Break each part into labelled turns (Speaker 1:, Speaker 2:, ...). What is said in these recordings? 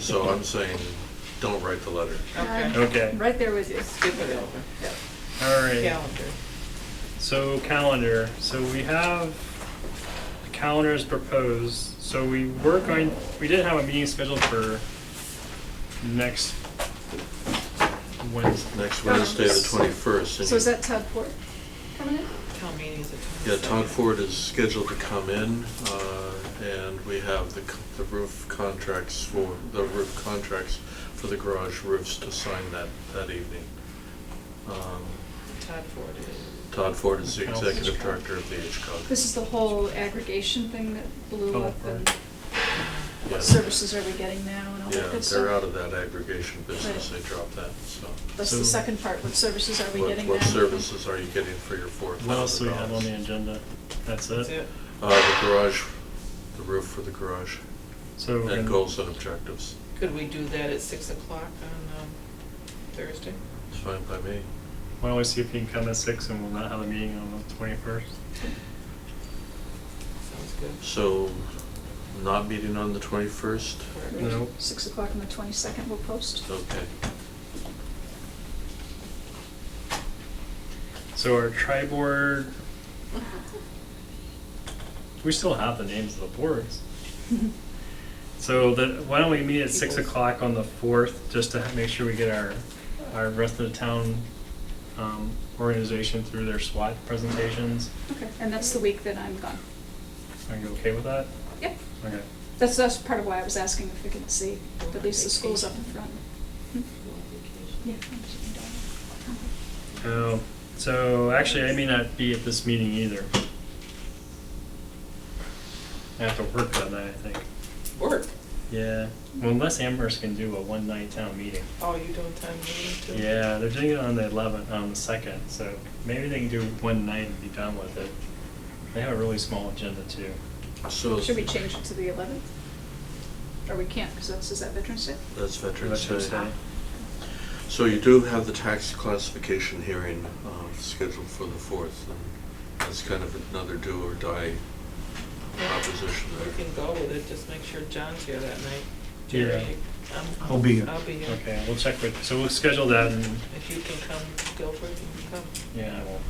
Speaker 1: So I'm saying, don't write the letter.
Speaker 2: Okay,
Speaker 3: Okay,
Speaker 4: Right there with you.
Speaker 2: skip it over.
Speaker 3: all right.
Speaker 2: Calendar.
Speaker 3: So calendar, so we have the calendar is proposed, so we were going, we did have a meeting scheduled for next Wednesday.
Speaker 1: Next Wednesday, the twenty-first.
Speaker 4: So is that Todd Ford coming in?
Speaker 2: Town meeting's at
Speaker 1: Yeah, Todd
Speaker 2: 22nd.
Speaker 1: Ford is scheduled to come in, uh, and we have the, c- the roof contracts for, the roof contracts for the garage roofs to sign that, that evening. Um,
Speaker 2: Todd Ford is.
Speaker 1: Todd Ford is the executive director of the HCOG.
Speaker 4: This is the whole aggregation thing that
Speaker 3: Oh,
Speaker 4: blew up and what
Speaker 1: Yes.
Speaker 4: services are we getting now and all
Speaker 1: Yeah,
Speaker 4: that good stuff?
Speaker 1: they're out of that aggregation business, they
Speaker 4: Right.
Speaker 1: dropped that, so.
Speaker 4: That's the
Speaker 3: So-
Speaker 4: second part, what services are we
Speaker 1: What-
Speaker 4: getting now?
Speaker 1: What services are you getting for your four thousand dollars?
Speaker 3: What else do we have on the agenda? That's
Speaker 2: That's
Speaker 3: it?
Speaker 2: it.
Speaker 1: Uh, the garage, the roof for the garage,
Speaker 3: So we're
Speaker 1: and
Speaker 3: gonna-
Speaker 1: goals and objectives,
Speaker 2: Could we do that at six o'clock on um, Thursday?
Speaker 1: it's fine by me.
Speaker 3: Why don't we see if he can come at six and we'll not have a meeting on the twenty-first?
Speaker 2: Sounds good.
Speaker 1: So, not meeting on the twenty-first?
Speaker 2: Correct.
Speaker 3: No.
Speaker 4: Six o'clock on the twenty-second, we'll post.
Speaker 1: Okay.
Speaker 3: So our tri board. We still have the names of the boards. So the, why don't we meet at six o'clock on the fourth, just to make sure we get our, our rest of the town, um, organization through their SWAT presentations?
Speaker 4: Okay, and that's the week that I'm gone.
Speaker 3: Are you okay with that?
Speaker 4: Yep,
Speaker 3: Okay.
Speaker 4: that's, that's part of why I was asking if we could see, at least the schools up in front. Hmm?
Speaker 2: Go on vacation.
Speaker 4: Yeah. I'm just gonna die.
Speaker 3: Oh, so actually, I may not be at this meeting either. I have to work that night, I think.
Speaker 2: Work.
Speaker 3: Yeah, well, unless Amherst can do a one-night town meeting.
Speaker 2: Oh, you doing time meeting too?
Speaker 3: Yeah, they're doing it on the eleventh, on the second, so maybe they can do one night and be done with it. They have a really small agenda too.
Speaker 1: So,
Speaker 4: Should we change it to the eleventh? Or we can't, because that's, is that Veterans Day?
Speaker 1: that's Veterans
Speaker 3: Veterans
Speaker 1: Day.
Speaker 3: Day.
Speaker 1: So you do have the tax classification hearing uh, scheduled for the fourth, and that's kind of another do or die proposition
Speaker 2: We
Speaker 1: there.
Speaker 2: can go with it, just make sure John's here that night.
Speaker 3: Yeah.
Speaker 2: Jerry, I'm-
Speaker 5: I'll be here.
Speaker 2: I'll be here.
Speaker 3: Okay, we'll check with, so we'll schedule that and,
Speaker 2: If you can come, Guilford, you can come.
Speaker 3: yeah, I will.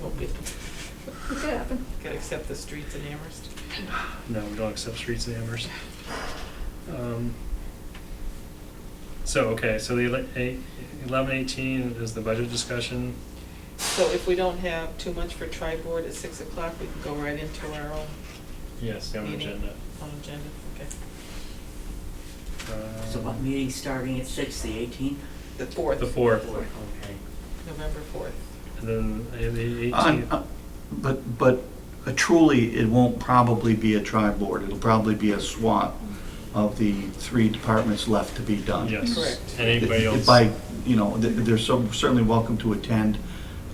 Speaker 2: We'll be-
Speaker 4: It could happen.
Speaker 2: Gotta accept the streets in Amherst.
Speaker 3: No, we don't accept streets in Amherst. Um, So, okay, so the ele- eight- eleven eighteen is the budget discussion.
Speaker 2: So if we don't have too much for tri-board at six o'clock, we can go right into our own,
Speaker 3: Yes, the
Speaker 2: Meeting.
Speaker 3: agenda.
Speaker 2: own agenda, okay?
Speaker 3: Um,
Speaker 5: So what meeting starting at six, the eighteenth?
Speaker 2: The fourth,
Speaker 3: The fourth,
Speaker 5: Okay.
Speaker 2: November fourth.
Speaker 3: and then uh, the
Speaker 6: On-
Speaker 3: eighteenth.
Speaker 6: uh, But, but uh, truly, it won't probably be a tri-board, it'll probably be a SWAT of the three departments left to be done.
Speaker 3: Yes.
Speaker 2: Correct.
Speaker 3: And anybody
Speaker 6: If- if
Speaker 3: else?
Speaker 6: By, you know, th- they're so- certainly welcome to attend,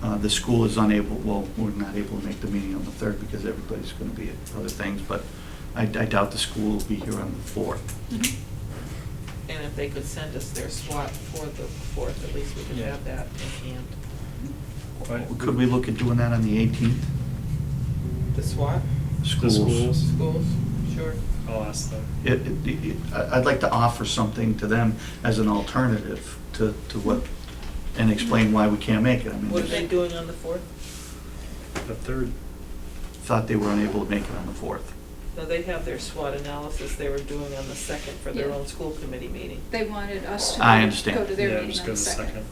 Speaker 6: Uh, the school is unable, well, we're not able to make the meeting on the third because everybody's gonna be at other things, but I I doubt the school will be here on the fourth.
Speaker 4: Mhm.
Speaker 2: And if they could send us their SWAT for the fourth, at least we could
Speaker 3: Yeah.
Speaker 2: have that in hand.
Speaker 3: Right.
Speaker 6: Could we look at doing that on the eighteenth?
Speaker 2: The SWAT,
Speaker 3: The schools,
Speaker 2: schools, sure.
Speaker 3: I'll ask them.
Speaker 6: it, it- it- I- I'd like to offer something to them as an alternative to, to what, and explain why we can't make it. I mean,
Speaker 2: What are they
Speaker 6: I
Speaker 2: doing on the fourth?
Speaker 3: The third,
Speaker 6: thought they were unable to make it on the 4th.
Speaker 2: No, they have their SWOT analysis they were doing on the second for their
Speaker 4: Yeah.
Speaker 2: own school committee meeting.
Speaker 4: They wanted us to.
Speaker 6: I understand.
Speaker 4: Go to their
Speaker 3: yeah,
Speaker 4: meeting
Speaker 3: just
Speaker 4: on
Speaker 3: go to
Speaker 4: the
Speaker 3: the second.
Speaker 4: second.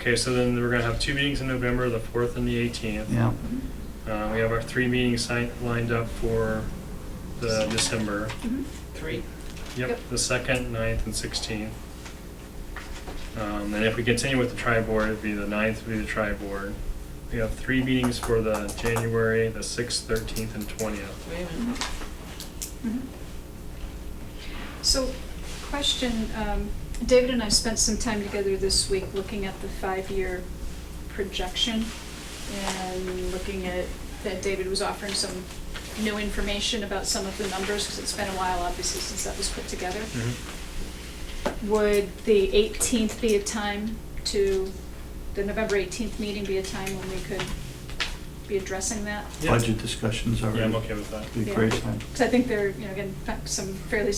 Speaker 3: Okay, so then we're gonna have two meetings in November, the fourth and the eighteenth.
Speaker 6: Yeah,
Speaker 3: Uh, we have our three meetings signed, lined up for the December.
Speaker 4: Mhm.
Speaker 2: Three.
Speaker 3: Yep,
Speaker 4: Yep.
Speaker 3: the second, ninth, and sixteenth. Um, and if we continue with the tri-board, it'd be the ninth would be the tri-board. We have three meetings for the January, the sixth, thirteenth, and twentieth.
Speaker 2: Wait a minute.
Speaker 4: Mhm. Mhm. Mm-hmm. So, question, um, David and I spent some time together this week looking at the five-year projection and looking at, that David was offering some new information about some of the numbers, because it's been a while, obviously, since that was put together.
Speaker 3: Mm-hmm.
Speaker 4: Would the 18th be a time to, the November 18th meeting be a time when we could be addressing that?
Speaker 3: Yeah.
Speaker 6: budget discussions are.
Speaker 3: Yeah, I'm okay with that.
Speaker 6: Be a great time.
Speaker 4: Because I think there, you know, again, some fairly